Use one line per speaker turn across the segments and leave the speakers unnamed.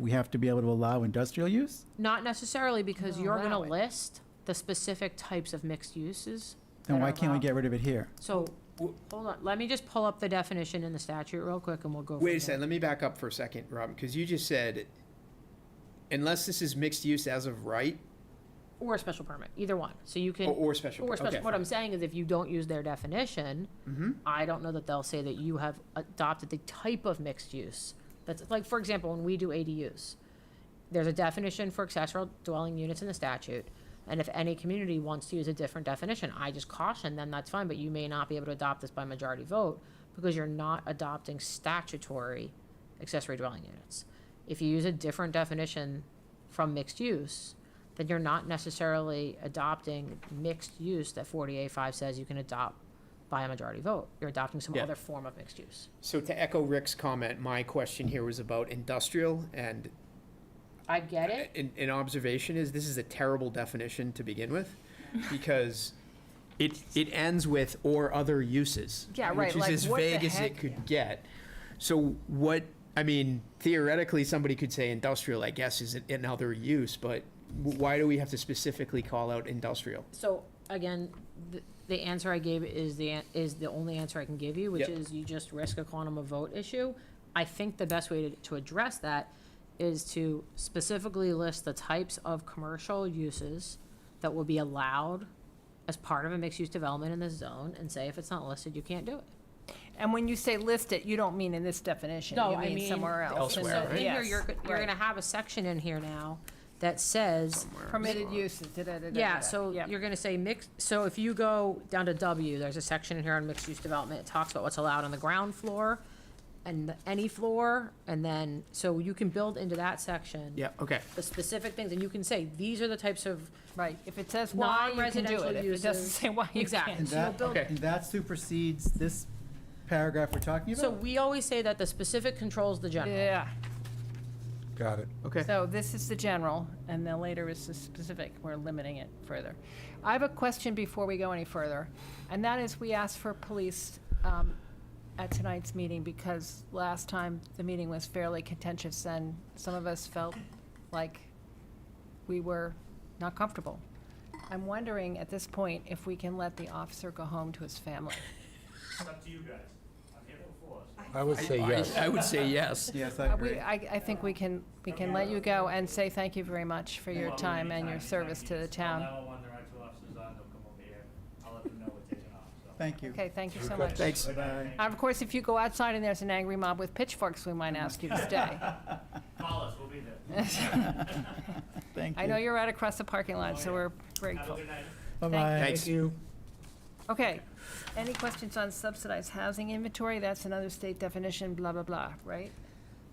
we have to be able to allow industrial use?
Not necessarily, because
No,
you're gonna
allow it.
list the specific types of mixed uses.
Then
that
why
are
can't we
allowed.
get rid of it here?
So,
W-
hold on, let me just pull up the definition in the statute real quick and we'll go.
Wait a
from there.
second, let me back up for a second, Robin, because you just said, unless this is mixed use as of right,
Or a special permit, either one. So you
or,
can,
or special.
or a
permit.
special, what I'm saying is if you don't use their definition,
Mm-hmm.
I don't know that they'll say that you have adopted the type of mixed use. That's, like, for example, when we do ADUs, there's a definition for accessory dwelling units in the statute. And if any community wants to use a different definition, I just caution them, that's fine, but you may not be able to adopt this by majority vote because you're not adopting statutory accessory dwelling units. If you use a different definition from mixed use, then you're not necessarily adopting mixed use that 40A five says you can adopt by a majority vote. You're adopting some
Yeah.
other form of mixed use.
So to echo Rick's comment, my question here was about industrial and
I get it.
an, an observation is this is a terrible definition to begin with because it it ends with or other uses.
Yeah, right,
Which is
like,
as
what the
vague as it
heck?
could get. So what I mean, theoretically, somebody could say industrial. I guess is another use, but w- why do we have to specifically call out industrial?
So, again, the, the answer I gave is the, an- is the only answer I can give you, which
Yep.
is you just risk a quantum of vote issue. I think the best way to, to address that is to specifically list the types of commercial uses that will be allowed as part of a mixed-use development in this zone, and say if it's not listed, you can't do it.
And when you say list it, you don't mean in this definition.
No,
You
I mean
Somewhere else.
So
in
Elsewhere,
the-
in here,
yes,
you're, go- you're
right.
gonna have a section in here now that says
Permitted uses, da-da-da-da-da-da.
Yeah, so
Yep.
you're gonna say mixed, so if you go down to W, there's a section in here on mixed-use development, it talks about what's allowed on the ground floor and the- any floor, and then, so you can build into that section.
Yeah. Okay.
The specific things, and you can say, these are the types of,
Right, if it says why, you can do
Non-residential
it. If it doesn't
uses.
say why, you
Exactly.
can't.
And
So you'll
that,
build-
Okay.
and that supersedes this paragraph we're talking
so
about?
we always say that the specific controls the general.
Yeah,
Got it.
Okay.
so this is the general, and then later is the specific. We're limiting it further. I have a question before we go any further, and that is, we asked for police um, at tonight's meeting because last time the meeting was fairly contentious, and some of us felt like we were not comfortable. I'm wondering at this point if we can let the officer go home to his family.
It's up to you guys. I'm here before, so.
I would say yes.
I, I would say yes.
Yes, I
Uh, we-
agree.
I, I think we can, we can let you go and say thank you very much for your
Well,
time and your
anytime,
service
anytime
to
you
the
just call
town.
911, the right two officers on, they'll come over here. I'll let them know we're taking off, so.
Thank you.
Okay, thank you so much.
Thanks.
Bye-bye, thank you.
And Of course, if you go outside and there's an angry mob with pitchforks, we might ask you to stay.
Call us, we'll be there.
Thank you.
I know you're right across the parking lot, so we're
Have a
grateful.
good night.
Bye-bye.
Thanks. you.
Okay, any questions on subsidized housing inventory? That's another state definition, blah, blah, blah, right?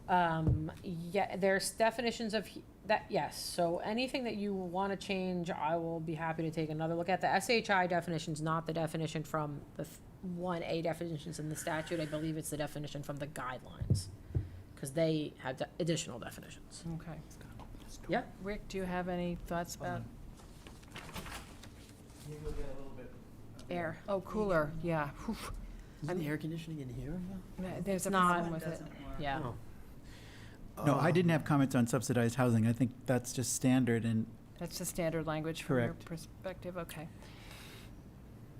Um, yeah, there's definitions of, he- that, yes, so anything that you wanna change, I will be happy to take another look at. The SHI definition's not the definition from the one A definitions in the statute, I believe it's the definition from the guidelines. Cause they have de- additional definitions.
Okay.
Yep.
Rick, do you have any thoughts about
Um, Maybe we'll get a little bit.
Air.
Oh, cooler, yeah. Whew.
Isn't the air conditioning in here? Oh,
There's a
not-
problem with it.
Yeah.
No.
No, I didn't have comments on subsidized housing. I think that's just standard and
That's the standard language from your
Correct.
perspective, okay.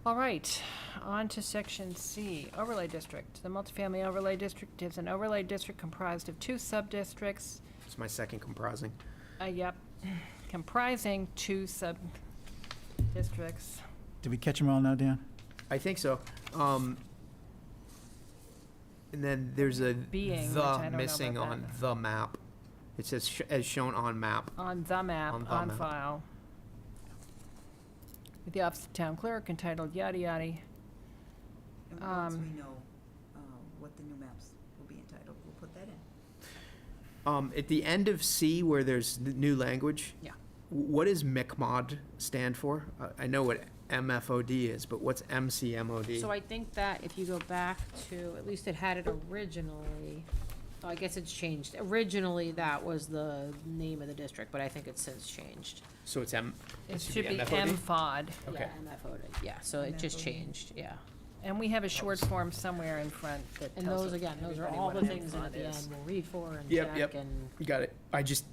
All right, on to section C, overlay district. The multifamily overlay district is an overlay district comprised of two sub-districts,
It's my second comprising.
uh, yep, comprising two sub-districts.
did we catch them all now, Dan?
I think so. Um, and then there's a
Being, which I
the
don't know
missing
about
on
that.
the map. It says sh- as shown on map.
On the map,
On the
on
map.
file. With the office of town clerk entitled yada yada.
And once
Um,
we know uh, what the new maps will be entitled, we'll put that in.
Um, at the end of C, where there's n- new language.
Yeah.
w- What does MCMOD stand for? Uh, I know what MFOD is, but what's MCMOD?
So I think that if you go back to, at least it had it originally, oh, I guess it's changed. Originally, that was the name of the district, but I think it's since changed.
So it's M.
It should be
MFOD?
MFOD.
Okay.
Yeah, MFO'd it, yeah, so it just
MFO'd.
changed, yeah.
And we have a short form somewhere in front that
And
tells
those, again, those are
everybody
all
what
the
an
things that at
M-Con
the end
is.
we'll read for and
Yep,
check and.
yep. You got it. I just